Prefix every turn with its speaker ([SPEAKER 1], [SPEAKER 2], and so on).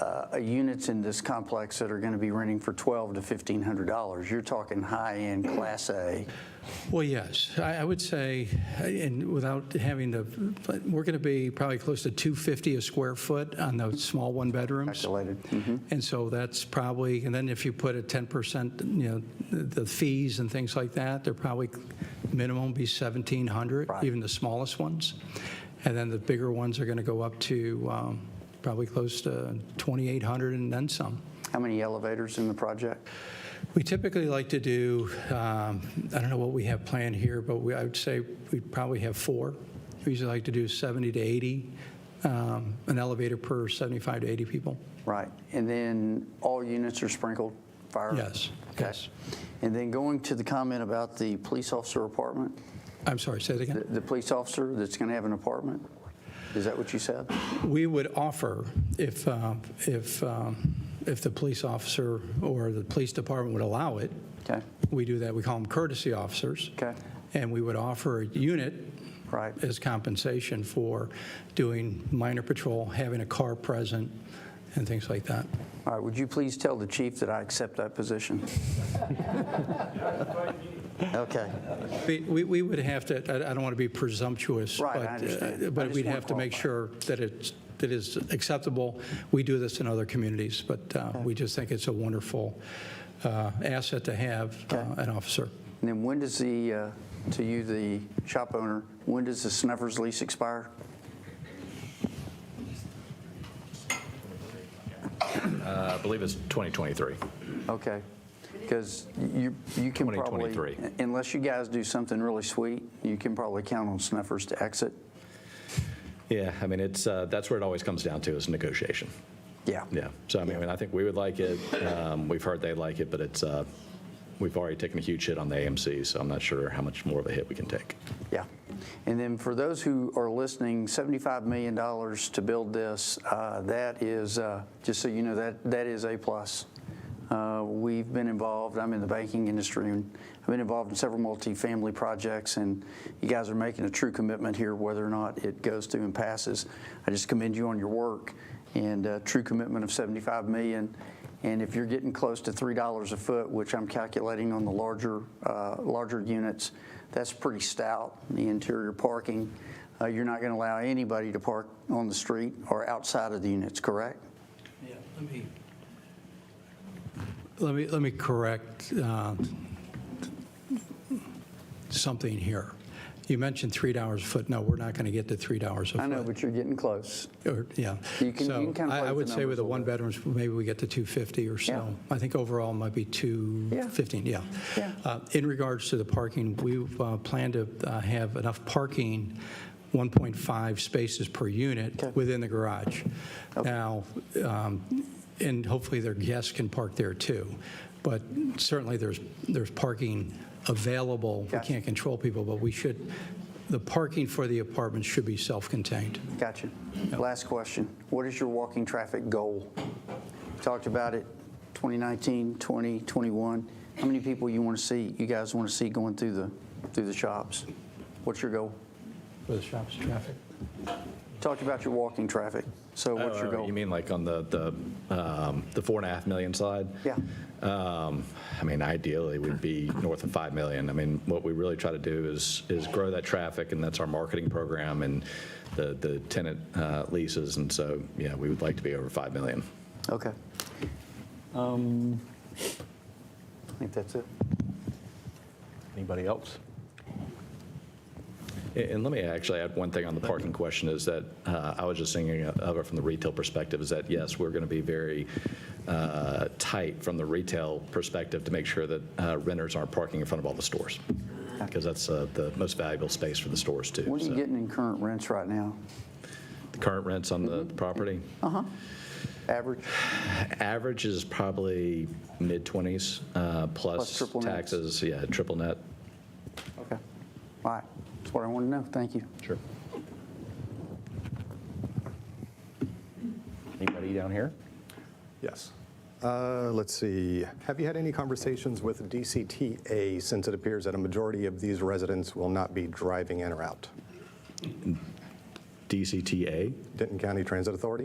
[SPEAKER 1] uh, units in this complex that are going to be renting for $1,200 to $1,500. You're talking high-end Class A.
[SPEAKER 2] Well, yes, I, I would say, and without having to, but we're going to be probably close to 250 a square foot on those small one-bedrooms.
[SPEAKER 1] Calculated.
[SPEAKER 2] And so that's probably, and then if you put a 10%, you know, the the fees and things like that, they're probably minimum be 1,700,
[SPEAKER 1] Right.
[SPEAKER 2] even the smallest ones. And then the bigger ones are going to go up to um, probably close to 2,800 and then some.
[SPEAKER 1] How many elevators in the project?
[SPEAKER 2] We typically like to do, um, I don't know what we have planned here, but we, I would say we probably have four. We usually like to do 70 to 80, um, an elevator per 75 to 80 people.
[SPEAKER 1] Right. And then all units are sprinkled fire?
[SPEAKER 2] Yes,
[SPEAKER 1] Okay.
[SPEAKER 2] yes.
[SPEAKER 1] And then going to the comment about the police officer apartment,
[SPEAKER 2] I'm sorry, say that
[SPEAKER 1] the,
[SPEAKER 2] again.
[SPEAKER 1] the police officer that's going to have an apartment? Is that what you said?
[SPEAKER 2] We would offer if, uh, if, um, if the police officer or the police department would allow it,
[SPEAKER 1] Okay,
[SPEAKER 2] we do that, we call them courtesy officers.
[SPEAKER 1] Okay.
[SPEAKER 2] And we would offer a unit
[SPEAKER 1] right.
[SPEAKER 2] as compensation for doing minor patrol, having a car present, and things like that.
[SPEAKER 1] All right, would you please tell the chief that I accept that position? Okay,
[SPEAKER 2] We- We we would have to, I I don't want to be presumptuous.
[SPEAKER 1] Right, I
[SPEAKER 2] but, uh,
[SPEAKER 1] understand. I
[SPEAKER 2] But
[SPEAKER 1] just
[SPEAKER 2] we'd
[SPEAKER 1] wanna
[SPEAKER 2] have to make
[SPEAKER 1] qualify.
[SPEAKER 2] sure that it's, that it's acceptable. We do this in other communities, but uh, we just think it's a wonderful uh, asset to have uh, an officer.
[SPEAKER 1] and then when does the, uh, to you, the shop owner, when does the Snuffers lease expire?
[SPEAKER 3] I believe it's 2023.
[SPEAKER 1] Okay, because you, you can probably.
[SPEAKER 3] 2023.
[SPEAKER 1] Unless you guys do something really sweet, you can probably count on Snuffers to exit.
[SPEAKER 3] Yeah, I mean, it's, uh, that's where it always comes down to is negotiation.
[SPEAKER 1] Yeah.
[SPEAKER 3] Yeah, so I mean, I think we would like it. Um, We've heard they like it, but it's, uh, we've already taken a huge hit on the AMC, so I'm not sure how much more of a hit we can take.
[SPEAKER 1] Yeah. And then for those who are listening, $75 million to build this, uh, that is, uh, just so you know, that, that is A+. plus. Uh, We've been involved, I'm in the banking industry, and I've been involved in several multifamily projects, and you guys are making a true commitment here, whether or not it goes through and passes. I just commend you on your work and uh, true commitment of 75 million. And if you're getting close to $3 a foot, which I'm calculating on the larger, uh, larger units, that's pretty stout, the interior parking. Uh, You're not going to allow anybody to park on the street or outside of the units, correct?
[SPEAKER 2] Yeah, let me. Let me, let me correct uh, something here. You mentioned $3 a foot. No, we're not going to get to $3 a foot.
[SPEAKER 1] I know, but you're getting close.
[SPEAKER 2] Or, yeah.
[SPEAKER 1] You can- you
[SPEAKER 2] So
[SPEAKER 1] can kind of
[SPEAKER 2] I-
[SPEAKER 1] play
[SPEAKER 2] I
[SPEAKER 1] with
[SPEAKER 2] would
[SPEAKER 1] the
[SPEAKER 2] say with
[SPEAKER 1] numbers
[SPEAKER 2] the
[SPEAKER 1] a
[SPEAKER 2] one
[SPEAKER 1] little
[SPEAKER 2] bedrooms, maybe we get to 250 or so.
[SPEAKER 1] Yeah.
[SPEAKER 2] I think overall it might be 215, yeah.
[SPEAKER 1] Yeah.
[SPEAKER 2] Uh, In regards to the parking, we uh, plan to uh, have enough parking, 1.5 spaces per
[SPEAKER 1] Okay.
[SPEAKER 2] unit within the garage. Now, um, and hopefully their guests can park there too. But certainly there's, there's parking available. We
[SPEAKER 1] Gotcha.
[SPEAKER 2] can't control people, but we should, the parking for the apartments should be self-contained.
[SPEAKER 1] Gotcha. Last question. What is your walking traffic goal? Talked about it, 2019, 20, 21. How many people you want to see, you guys want to see going through the, through the shops? What's your goal?
[SPEAKER 2] For the shop's traffic?
[SPEAKER 1] Talked about your walking traffic, so what's your
[SPEAKER 3] Oh,
[SPEAKER 1] goal?
[SPEAKER 3] You mean like on the, the, um, the four and a half million side?
[SPEAKER 1] Yeah.
[SPEAKER 3] Um, I mean, ideally, we'd be north of 5 million. I mean, what we really try to do is, is grow that traffic, and that's our marketing program and the, the tenant uh, leases. And so, yeah, we would like to be over 5 million.
[SPEAKER 1] Okay. Um, I think that's it.
[SPEAKER 4] Anybody else?
[SPEAKER 3] And and let me actually add one thing on the parking question is that uh, I was just thinking of it from the retail perspective is that, yes, we're going to be very uh, tight from the retail perspective to make sure that uh, renters aren't parking in front of all the stores because that's uh, the most valuable space for the stores too.
[SPEAKER 1] What are you
[SPEAKER 3] So
[SPEAKER 1] getting in current rents right now?
[SPEAKER 3] The current rents on
[SPEAKER 1] Mm-hmm.
[SPEAKER 3] the property,
[SPEAKER 1] Oh. Average?
[SPEAKER 3] average is probably mid-20s uh,
[SPEAKER 1] Plus
[SPEAKER 3] plus
[SPEAKER 1] triple nets.
[SPEAKER 3] taxes. Yeah, triple net.
[SPEAKER 1] Okay. All right, that's what I wanted to know, thank you.
[SPEAKER 3] Sure.
[SPEAKER 4] Anybody down here?
[SPEAKER 5] Yes. Uh, Let's see. Have you had any conversations with DCTA since it appears that a majority of these residents will not be driving in or out?
[SPEAKER 3] DCTA? Um,
[SPEAKER 5] Denton County Transit Authority?